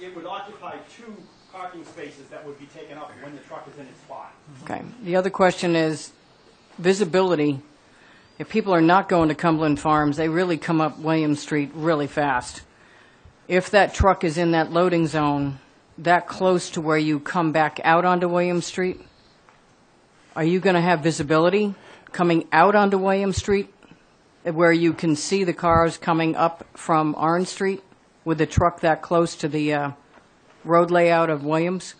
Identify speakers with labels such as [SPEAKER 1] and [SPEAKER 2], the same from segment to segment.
[SPEAKER 1] it would occupy two parking spaces that would be taken up when the truck is in its spot.
[SPEAKER 2] Okay. The other question is visibility. If people are not going to Cumberland Farms, they really come up Williams Street really fast. If that truck is in that loading zone, that close to where you come back out onto Williams Street, are you going to have visibility coming out onto Williams Street where you can see the cars coming up from Orange Street with the truck that close to the uh, road layout of Williams?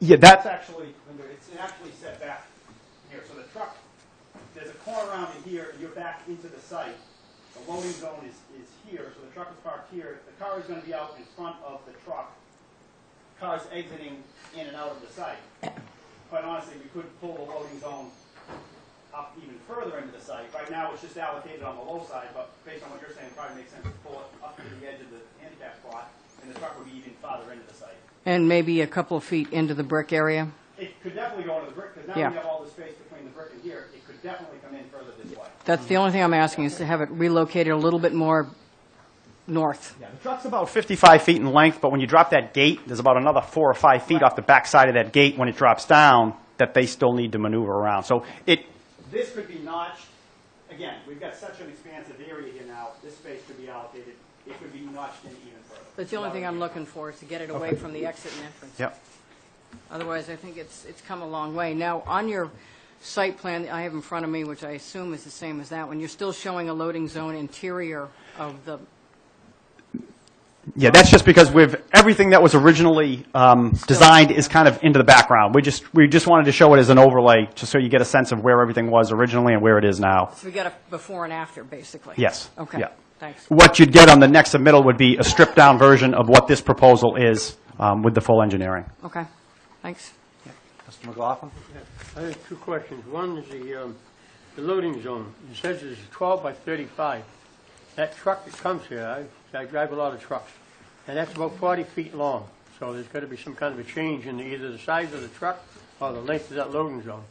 [SPEAKER 3] Yeah,
[SPEAKER 1] It's
[SPEAKER 3] that,
[SPEAKER 1] actually, Linda, it's actually set back here, so the truck, there's a corner around it here, and you're back into the site. The loading zone is, is here, so the truck is parked here, the car is gonna be out in front of the truck. Cars exiting in and out of the site. Quite honestly, we could pull the loading zone up even further into the site. Right now, it's just allocated on the low side, but based on what you're saying, it probably makes sense to pull it up to the edge of the handicap spot, and the truck would be even farther into the site.
[SPEAKER 2] And maybe a couple of feet into the brick area?
[SPEAKER 1] It could definitely go into the brick, because now
[SPEAKER 2] Yeah.
[SPEAKER 1] we have all the space between the brick and here, it could definitely come in further this way.
[SPEAKER 2] That's the only thing I'm asking, is to have it relocated a little bit more north.
[SPEAKER 3] the truck's about 55 feet in length, but when you drop that gate, there's about another four or five feet off the backside of that gate when it drops down that they still need to maneuver around. So it,
[SPEAKER 1] This could be notched, again, we've got such an expansive area here now, this space could be allocated, it could be notched in even further.
[SPEAKER 2] That's the only thing I'm looking for, is to get it away from the exit and entrance.
[SPEAKER 3] yep.
[SPEAKER 2] Otherwise, I think it's, it's come a long way. Now, on your site plan that I have in front of me, which I assume is the same as that one, you're still showing a loading zone interior of the,
[SPEAKER 3] Yeah, that's just because we've, everything that was originally um, designed is kind of into the background. We just, we just wanted to show it as an overlay, just so you get a sense of where everything was originally and where it is now.
[SPEAKER 2] so we got a before and after, basically?
[SPEAKER 3] Yes,
[SPEAKER 2] Okay,
[SPEAKER 3] yeah.
[SPEAKER 2] thanks.
[SPEAKER 3] What you'd get on the next submittal would be a stripped-down version of what this proposal is um, with the full engineering.
[SPEAKER 2] Okay, thanks.
[SPEAKER 4] Mr. McLaughlin?
[SPEAKER 5] I have two questions. One is the, um, the loading zone. It says it's 12 by 35. That truck that comes here, I, I drive a lot of trucks, and that's about 40 feet long. So there's got to be some kind of a change in either the size of the truck or the length of that loading zone.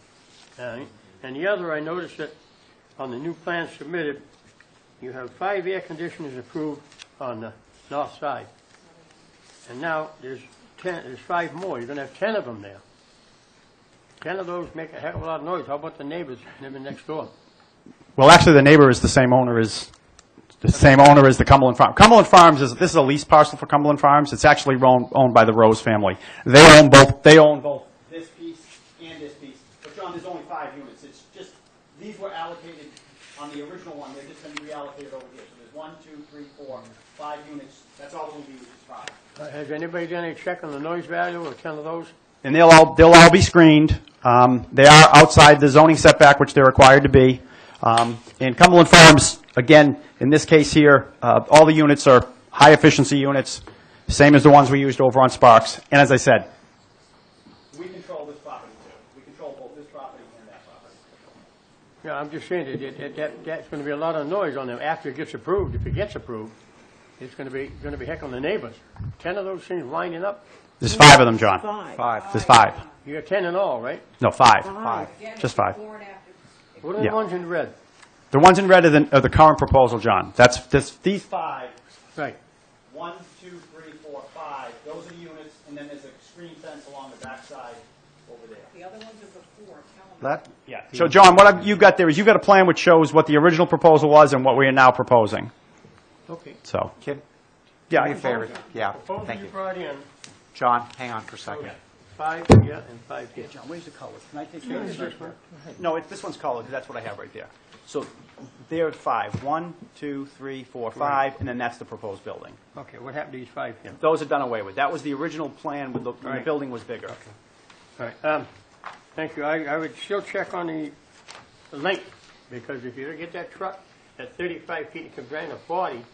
[SPEAKER 5] All right? And the other, I noticed that on the new plan submitted, you have five air conditioners approved on the north side. And now there's 10, there's five more. You're going to have 10 of them there. Ten of those make a heck of a lot of noise. How about the neighbors living next door?
[SPEAKER 3] Well, actually, the neighbor is the same owner as, the same owner as the Cumberland Farm. Cumberland Farms is, this is a lease parcel for Cumberland Farms. It's actually owned, owned by the Rose family. They own both, they own both.
[SPEAKER 1] This piece and this piece, but John, there's only five units, it's just, these were allocated on the original one, they're just gonna be reallocated over here. So there's one, two, three, four, five units, that's all we'll be, is five.
[SPEAKER 5] Uh, Has anybody done any check on the noise value of ten of those?
[SPEAKER 3] And they'll all, they'll all be screened. Um, They are outside the zoning setback, which they're required to be. Um, And Cumberland Farms, again, in this case here, uh, all the units are high-efficiency units, same as the ones we used over on Sparks. And as I said,
[SPEAKER 1] We control this property too, we control both this property and that property.
[SPEAKER 5] Yeah, I'm just saying that, it- it- that, that's gonna be a lot of noise on them after it gets approved, if it gets approved. It's gonna be, gonna be heck on the neighbors. Ten of those things lining up,
[SPEAKER 3] there's five of them, John.
[SPEAKER 4] Five.
[SPEAKER 3] There's five.
[SPEAKER 5] you got ten in all, right?
[SPEAKER 3] No, five.
[SPEAKER 4] Five.
[SPEAKER 3] Just five.
[SPEAKER 5] What are the
[SPEAKER 3] Yeah.
[SPEAKER 5] ones in red?
[SPEAKER 3] The ones in red are the, are the current proposal, John. That's, this, these,
[SPEAKER 1] Five,
[SPEAKER 5] Right.
[SPEAKER 1] one, two, three, four, five, those are the units, and then there's a screen fence along the backside over there.
[SPEAKER 2] The other ones are before,
[SPEAKER 4] That,
[SPEAKER 3] yeah. So, John, what I've- you've got there is you've got a plan which shows what the original proposal was and what we are now proposing,
[SPEAKER 5] Okay.
[SPEAKER 3] so.
[SPEAKER 4] Kim, do me a
[SPEAKER 3] Yeah,
[SPEAKER 4] favor. Yeah,
[SPEAKER 5] Both
[SPEAKER 4] thank
[SPEAKER 5] you
[SPEAKER 4] you.
[SPEAKER 5] brought in,
[SPEAKER 4] John, hang on for a second.
[SPEAKER 5] five here and five here.
[SPEAKER 6] John, where's the colors? Can I take care of this first?
[SPEAKER 4] No, it- this one's colored, 'cause that's what I have right there. So there are five. One, two, three, four, five, and then that's the proposed building.
[SPEAKER 5] Okay, what happened to these five here?
[SPEAKER 4] Those are done away with. That was the original plan when the, when the
[SPEAKER 5] Right.
[SPEAKER 4] building was bigger.
[SPEAKER 5] All right, um, thank you. I, I would still check on the the length, because if you don't get that truck at thirty-five feet, it comes down to forty,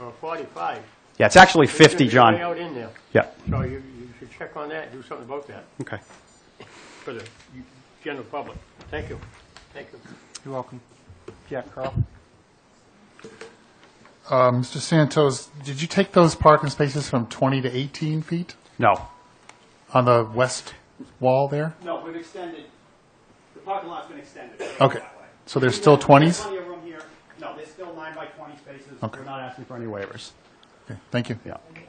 [SPEAKER 5] or forty-five.
[SPEAKER 3] Yeah, it's actually
[SPEAKER 5] It's gonna
[SPEAKER 3] 50,
[SPEAKER 5] be Way
[SPEAKER 3] John.
[SPEAKER 5] out in there.
[SPEAKER 3] Yeah,
[SPEAKER 5] So you, you should check on that, do something about that
[SPEAKER 3] okay.
[SPEAKER 5] for the general public. Thank you. Thank you.
[SPEAKER 4] You're welcome. Yeah, Carl?
[SPEAKER 7] Uh, Mr. Santos, did you take those parking spaces from 20 to 18 feet
[SPEAKER 3] No.
[SPEAKER 7] on the west wall there?
[SPEAKER 1] No, we've extended, the parking lot's been extended.
[SPEAKER 7] Okay. So there's still 20s?
[SPEAKER 1] Plenty of room here, no, there's still nine by twenty spaces,
[SPEAKER 7] Okay.
[SPEAKER 1] we're not asking for any.
[SPEAKER 3] Any waivers?
[SPEAKER 7] Okay, Thank you.
[SPEAKER 3] Yeah.